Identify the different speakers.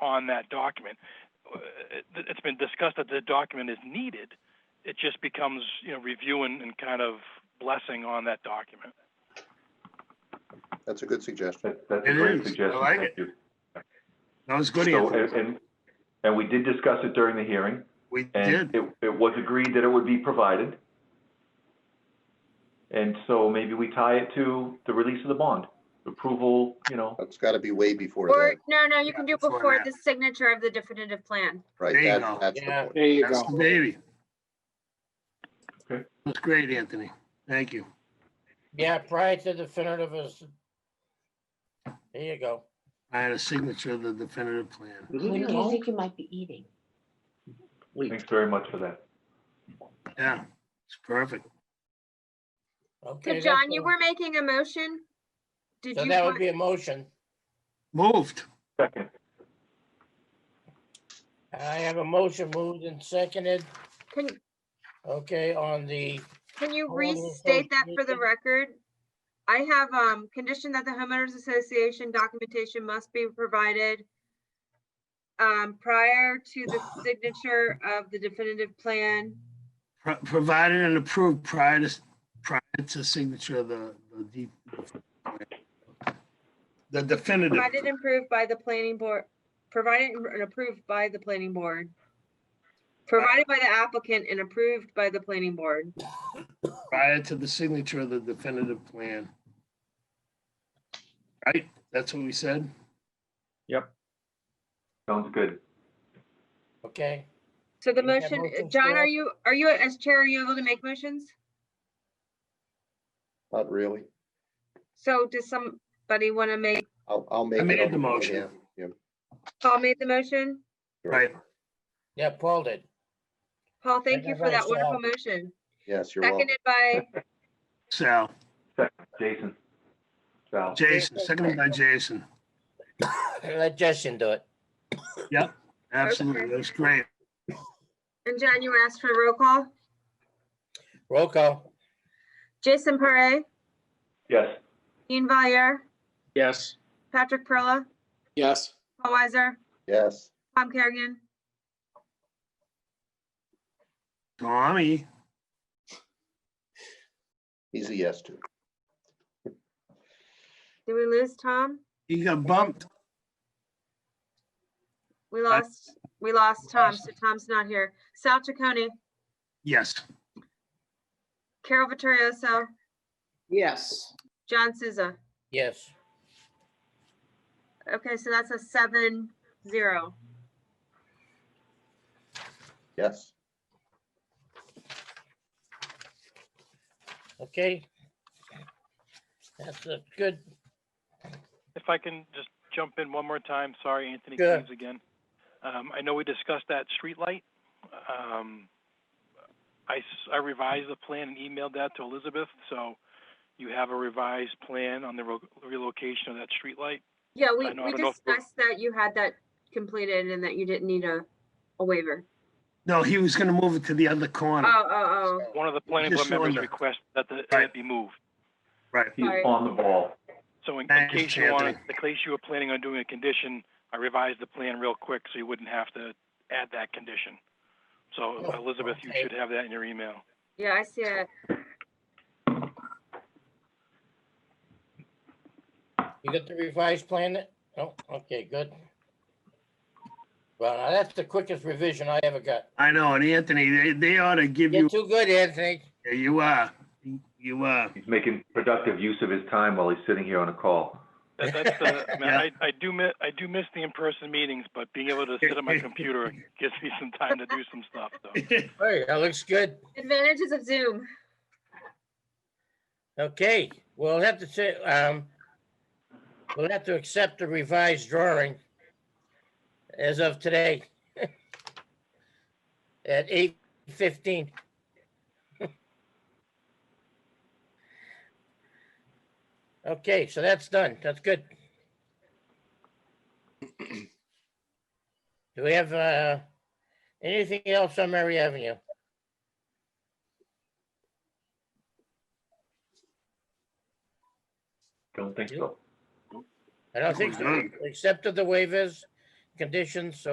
Speaker 1: on that document. Uh, it- It's been discussed that the document is needed. It just becomes, you know, review and, and kind of blessing on that document.
Speaker 2: That's a good suggestion.
Speaker 3: That- That's a
Speaker 4: It
Speaker 3: great
Speaker 4: is. I
Speaker 3: suggestion.
Speaker 4: like
Speaker 3: Thank
Speaker 4: it.
Speaker 3: you.
Speaker 4: That was good,
Speaker 3: So,
Speaker 4: Anthony.
Speaker 3: and, and- and we did discuss it during the hearing,
Speaker 4: We
Speaker 3: and
Speaker 4: did.
Speaker 3: it, it was agreed that it would be provided. And so maybe we tie it to the release of the bond, approval, you know,
Speaker 2: It's got to be way before
Speaker 5: Or,
Speaker 2: that,
Speaker 5: no, no, you
Speaker 4: Yeah,
Speaker 5: can do
Speaker 4: before
Speaker 5: before
Speaker 4: that.
Speaker 5: the signature of the definitive plan.
Speaker 2: right?
Speaker 4: There you
Speaker 2: That-
Speaker 4: go.
Speaker 2: That's the
Speaker 6: Yeah,
Speaker 2: point.
Speaker 6: there you
Speaker 4: That's the
Speaker 6: go.
Speaker 4: baby.
Speaker 3: Okay.
Speaker 4: That's great, Anthony. Thank you.
Speaker 6: Yeah, prior to definitive is. There you go.
Speaker 4: I had a signature of the definitive plan.
Speaker 7: When do you think you might be eating?
Speaker 3: thanks very much for that.
Speaker 4: Yeah, it's perfect.
Speaker 5: So
Speaker 6: Okay.
Speaker 5: John,
Speaker 6: that's
Speaker 5: you
Speaker 6: all.
Speaker 5: were making a motion? Did
Speaker 6: So
Speaker 5: you,
Speaker 6: that would
Speaker 5: want-
Speaker 6: be a motion.
Speaker 4: Moved.
Speaker 3: Second,
Speaker 6: I have a motion moved and seconded.
Speaker 5: can,
Speaker 6: Okay, on the,
Speaker 5: can you
Speaker 6: Hold on, hold on,
Speaker 5: restate that for the
Speaker 6: Nathan.
Speaker 5: record? I have, um, condition that the homeowners association documentation must be provided um, prior to the signature of the definitive plan.
Speaker 4: Pro- Provided and approved prior to, prior to signature of the, the deep. The definitive,
Speaker 5: Provided and approved by the planning board, provided and approved by the planning board. Provided by the applicant and approved by the planning board.
Speaker 4: prior to the signature of the definitive plan. Right? That's what we said?
Speaker 3: sounds good.
Speaker 6: okay,
Speaker 5: So the
Speaker 6: You have
Speaker 5: motion,
Speaker 6: motions,
Speaker 5: John,
Speaker 6: Joe?
Speaker 5: are you, are you, as chair, are you able to make motions?
Speaker 2: Not really.
Speaker 5: So does somebody want to make,
Speaker 2: I'll, I'll make. it
Speaker 4: made
Speaker 2: on
Speaker 4: the motion.
Speaker 2: yeah, yeah,
Speaker 5: Paul made the motion?
Speaker 2: you're
Speaker 4: Right.
Speaker 6: yeah, Paul did.
Speaker 5: Paul, thank you
Speaker 6: Seconded
Speaker 5: for
Speaker 6: by
Speaker 5: that wonderful
Speaker 6: Sal.
Speaker 5: motion.
Speaker 2: Yes, you're welcome.
Speaker 5: Seconded by,
Speaker 4: Sal,
Speaker 3: Jason. Sal,
Speaker 4: Jason, seconded by Jason.
Speaker 6: Let Justin do it.
Speaker 4: Absolutely. That's great.
Speaker 5: and John, you asked for a roll call.
Speaker 6: Roll call.
Speaker 5: Jason Parre,
Speaker 3: yes,
Speaker 5: Ian Valier,
Speaker 6: Yes.
Speaker 5: Patrick Perla,
Speaker 6: Yes.
Speaker 5: Paul Weiser,
Speaker 2: Yes.
Speaker 5: Tom Kerrigan,
Speaker 4: Tommy,
Speaker 2: He's a yes to.
Speaker 5: did we lose Tom?
Speaker 4: he got bumped.
Speaker 5: We lost, we lost Tom, so Tom's not here. Sal Chaconi,
Speaker 4: Yes.
Speaker 5: Carol Vittorioso,
Speaker 8: Yes.
Speaker 5: John Souza.
Speaker 6: Yes.
Speaker 5: Okay, so that's a seven zero.
Speaker 2: Yes.
Speaker 6: Okay. That's a good,
Speaker 1: If I can just jump in one more time, sorry, Anthony
Speaker 6: Sure.
Speaker 1: Keynes again. Um, I know we discussed that streetlight. Um, I, s- I revised the plan and emailed that to Elizabeth, so you have a revised plan on the ro- relocation of that streetlight.
Speaker 5: Yeah,
Speaker 1: I
Speaker 5: we,
Speaker 1: know, I
Speaker 5: we
Speaker 1: don't know if we're-
Speaker 5: discussed that you had that completed and that you didn't need a, a waiver.
Speaker 4: No, he was gonna move it to the other
Speaker 5: Oh,
Speaker 1: Hmm.
Speaker 4: corner.
Speaker 5: oh,
Speaker 1: One of the planning board
Speaker 4: Just
Speaker 1: members
Speaker 4: wonder.
Speaker 1: request that the,
Speaker 4: Right.
Speaker 1: it be moved.
Speaker 4: Right.
Speaker 3: he's
Speaker 5: Sorry.
Speaker 3: on the ball.
Speaker 1: So in, in
Speaker 4: Thanks,
Speaker 1: case you wanted,
Speaker 4: Anthony.
Speaker 1: in case you were planning on doing a condition, I revised the plan real quick so you wouldn't have to add that condition. So
Speaker 6: Oh,
Speaker 1: Elizabeth, you
Speaker 6: okay.
Speaker 1: should have that in your email.
Speaker 5: oh. Yeah, I see it.
Speaker 6: you got the revised plan? Oh, okay, good. Well, now that's the quickest revision I ever got.
Speaker 4: I know, and Anthony, they, they ought to give
Speaker 6: You're
Speaker 4: you,
Speaker 6: too good, Anthony.
Speaker 4: Yeah, you are, you are.
Speaker 3: He's making productive use of his time while he's sitting here on a call.
Speaker 1: That, that's the, I, mean,
Speaker 4: Yeah.
Speaker 1: I, I do miss, I do miss the in-person meetings, but being able to sit at my computer gives me some time to do some stuff, so.
Speaker 6: Hey, that looks good.
Speaker 5: Advantages of Zoom.
Speaker 6: Okay, we'll have to say, um, we'll have to accept the revised drawing as of today at eight fifteen. Okay, so that's done. That's good. Do we have, uh, anything else on Mary Avenue?
Speaker 3: Don't think so.
Speaker 6: I don't think
Speaker 4: We're
Speaker 6: so. We Accepted the waivers, conditions, so